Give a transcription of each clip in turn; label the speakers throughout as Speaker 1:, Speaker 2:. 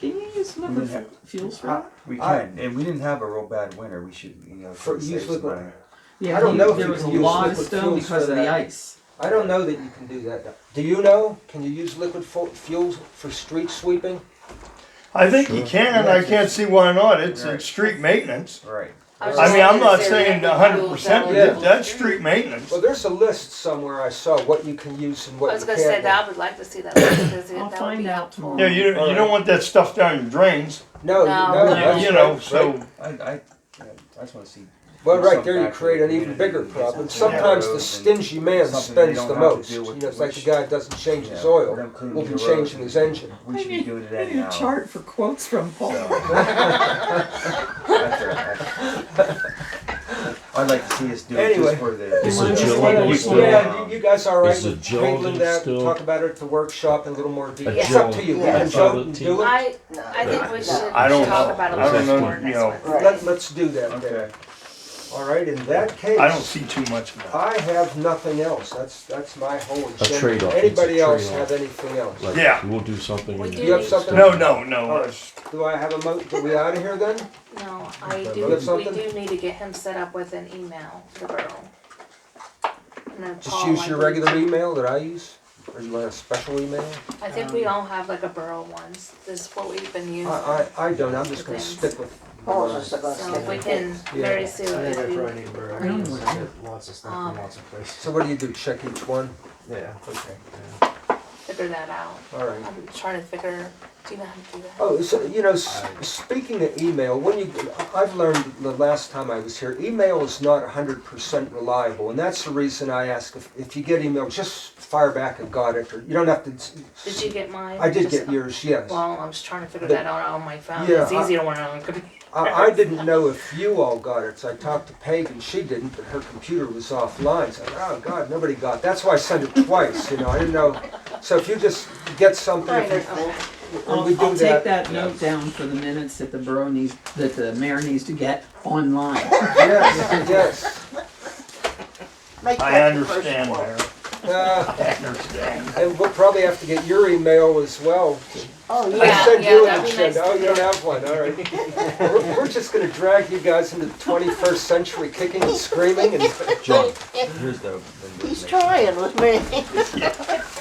Speaker 1: guys never
Speaker 2: We
Speaker 1: fu-
Speaker 2: have-
Speaker 1: feels right?
Speaker 2: We
Speaker 3: I-
Speaker 2: can, and we didn't have a real bad winter. We should, you know,
Speaker 3: For-
Speaker 2: save
Speaker 3: use
Speaker 2: some
Speaker 3: liquid-
Speaker 2: money.
Speaker 1: Yeah,
Speaker 3: I don't
Speaker 1: he-
Speaker 3: know if
Speaker 1: there
Speaker 3: you
Speaker 1: was a
Speaker 3: can use
Speaker 1: lot of
Speaker 3: liquid
Speaker 1: stone
Speaker 3: fuels
Speaker 1: because
Speaker 3: for
Speaker 1: of the
Speaker 3: that.
Speaker 1: ice.
Speaker 3: I don't know that you can do that. Do you know? Can you use liquid fu- fuels for street sweeping?
Speaker 4: I think you can, I can't see why not, it's,
Speaker 2: Right.
Speaker 4: it's street maintenance.
Speaker 2: Right.
Speaker 4: I mean, I'm not saying a hundred percent, but that- that's street maintenance.
Speaker 3: Well, there's a list somewhere I saw what you can use and what
Speaker 5: I was
Speaker 3: you
Speaker 5: gonna
Speaker 3: can't.
Speaker 5: say
Speaker 3: use.
Speaker 5: that, I would like to see that. because it-
Speaker 1: I'll
Speaker 5: that would
Speaker 1: find
Speaker 5: be
Speaker 1: out
Speaker 5: helpful.
Speaker 1: tomorrow.
Speaker 4: Yeah, you, you don't want that stuff down your drains,
Speaker 3: No, you-
Speaker 5: No,
Speaker 3: no,
Speaker 5: no.
Speaker 3: that's
Speaker 4: you know,
Speaker 3: right,
Speaker 4: so.
Speaker 3: right.
Speaker 2: I, I, I just want to see.
Speaker 3: Well, right
Speaker 2: something
Speaker 3: there, you
Speaker 2: back to
Speaker 3: create
Speaker 2: the
Speaker 3: an even
Speaker 2: community.
Speaker 3: bigger problem.
Speaker 2: Something down
Speaker 3: Sometimes
Speaker 2: road
Speaker 3: the
Speaker 2: and-
Speaker 3: stingy man
Speaker 2: something they
Speaker 3: spends
Speaker 2: don't
Speaker 3: the
Speaker 2: have to
Speaker 3: most.
Speaker 2: deal
Speaker 3: You
Speaker 2: with,
Speaker 3: know, it's like the
Speaker 2: which-
Speaker 3: guy that doesn't change his
Speaker 2: Yeah,
Speaker 3: oil,
Speaker 2: them cleaning
Speaker 3: will be
Speaker 2: the road.
Speaker 3: changing his engine.
Speaker 2: We should
Speaker 1: I
Speaker 2: be
Speaker 1: need,
Speaker 2: doing
Speaker 1: I
Speaker 2: that
Speaker 1: need
Speaker 2: now.
Speaker 1: a chart for quotes from Paul.
Speaker 2: That's right. I'd like to see us do it
Speaker 3: Anyway.
Speaker 2: just for the.
Speaker 6: It's
Speaker 1: a
Speaker 3: Just
Speaker 1: Jill
Speaker 3: let
Speaker 1: and
Speaker 3: us-
Speaker 1: Jill.
Speaker 3: Yeah, you- you guys all right
Speaker 6: Is
Speaker 3: with
Speaker 6: it Jill
Speaker 3: handling
Speaker 6: do
Speaker 3: that?
Speaker 6: still?
Speaker 3: Talk about it at the workshop in a little more detail.
Speaker 5: Yeah.
Speaker 3: It's up to you. We can
Speaker 6: Yeah.
Speaker 3: joke and
Speaker 6: Yeah.
Speaker 3: do it.
Speaker 5: I, I think we should
Speaker 4: I don't know.
Speaker 5: talk about it
Speaker 4: I
Speaker 5: a
Speaker 4: don't know,
Speaker 5: little more
Speaker 4: you
Speaker 5: next
Speaker 4: know.
Speaker 5: Wednesday.
Speaker 3: Let, let's do that
Speaker 2: Okay.
Speaker 3: then. All right, in that case.
Speaker 4: I don't see too much of that.
Speaker 3: I have nothing else. That's, that's my whole agenda.
Speaker 6: trade-off.
Speaker 3: Anybody
Speaker 6: It's a
Speaker 3: else
Speaker 6: trade-off.
Speaker 3: have anything else?
Speaker 6: Like,
Speaker 4: Yeah.
Speaker 6: We'll do something.
Speaker 5: We
Speaker 6: and-
Speaker 5: do
Speaker 3: You have something?
Speaker 4: No, no, no,
Speaker 3: All right. Do I have a mo, are we out of here then?
Speaker 5: No, I
Speaker 3: But
Speaker 5: do,
Speaker 3: look
Speaker 5: we
Speaker 3: something.
Speaker 5: do need to get him set up with an email, the borough. And then
Speaker 3: Just
Speaker 5: Paul,
Speaker 3: use
Speaker 5: I
Speaker 3: your
Speaker 5: think-
Speaker 3: regular email that I use? Or you want a special email?
Speaker 5: I think we all have like a borough ones, this is what we've been
Speaker 3: I,
Speaker 5: using.
Speaker 3: I, I don't. I'm just gonna stick with.
Speaker 7: Oh, it's
Speaker 3: what
Speaker 7: just
Speaker 3: I-
Speaker 7: like us.
Speaker 5: So if we can
Speaker 3: Yeah.
Speaker 5: very soon, if we-
Speaker 7: Lots of stuff
Speaker 5: Um,
Speaker 7: from lots of places.
Speaker 3: So what do you do? Check each one?
Speaker 7: Yeah.
Speaker 3: Okay,
Speaker 5: figure that out.
Speaker 3: all right.
Speaker 5: I'm trying to figure, do you know how to do that?
Speaker 3: Oh, so, you know, s- speaking of email, when you, I've learned the last time I was here, email is not hundred percent reliable, and that's the reason I ask if, if you get email, just fire back and got it, or you don't have to. s-
Speaker 5: Did you get mine?
Speaker 3: I did
Speaker 5: Just-
Speaker 3: get yours, yes. I,
Speaker 5: Well, I'm just trying to figure
Speaker 3: But-
Speaker 5: that out on my phone,
Speaker 3: Yeah,
Speaker 5: it's
Speaker 3: I-
Speaker 5: easier when I'm on the computer.
Speaker 3: I didn't know if you all got it, so I talked to Peg and she didn't, but her computer was offline, so, I thought, oh, God, nobody got, it." that's why I sent it twice, you know, I didn't know. So if you just get something, if you- when
Speaker 1: I'll,
Speaker 3: we do
Speaker 1: I'll take
Speaker 3: that,
Speaker 1: that note down for the minutes that the borough needs, that the mayor needs to get online.
Speaker 3: yes, yes.
Speaker 7: Make
Speaker 4: I
Speaker 7: that the first
Speaker 4: understand
Speaker 7: one.
Speaker 4: there,
Speaker 3: Uh,
Speaker 4: I understand.
Speaker 3: And we'll probably have to get your email as well.
Speaker 7: Oh,
Speaker 3: I
Speaker 7: yeah.
Speaker 5: Yeah,
Speaker 3: sent
Speaker 5: yeah,
Speaker 3: you an
Speaker 5: that'd be
Speaker 3: agenda.
Speaker 5: nice.
Speaker 3: Oh, you don't have one, all right. We're, we're just gonna drag you guys into the twenty-first century kicking and screaming and
Speaker 2: John, here's the. the-
Speaker 7: He's trying with me.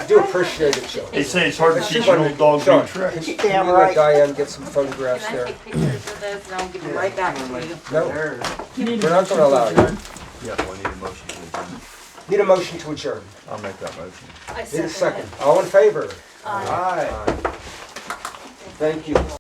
Speaker 3: I do appreciate it, Joe.
Speaker 4: They say it's hard to
Speaker 3: That's
Speaker 4: teach
Speaker 3: fun.
Speaker 4: an old dog
Speaker 3: Sure.
Speaker 4: new tricks.
Speaker 3: Can
Speaker 7: Damn
Speaker 3: you let
Speaker 7: right.
Speaker 3: Diane get some photographs
Speaker 5: Can I
Speaker 3: there?
Speaker 5: take pictures of this and I'll give them right back to you?
Speaker 3: No,
Speaker 1: You need a
Speaker 3: We're not
Speaker 1: motion
Speaker 3: gonna allow
Speaker 1: to
Speaker 3: it.
Speaker 1: adjourn.
Speaker 2: Yeah, well, I need a motion to adjourn.
Speaker 3: need a motion to adjourn.
Speaker 2: I'll make that motion.
Speaker 5: I
Speaker 3: Need a
Speaker 5: second
Speaker 3: second.
Speaker 5: it.
Speaker 3: All in favor?
Speaker 5: Aye.
Speaker 3: Aye. Thank you.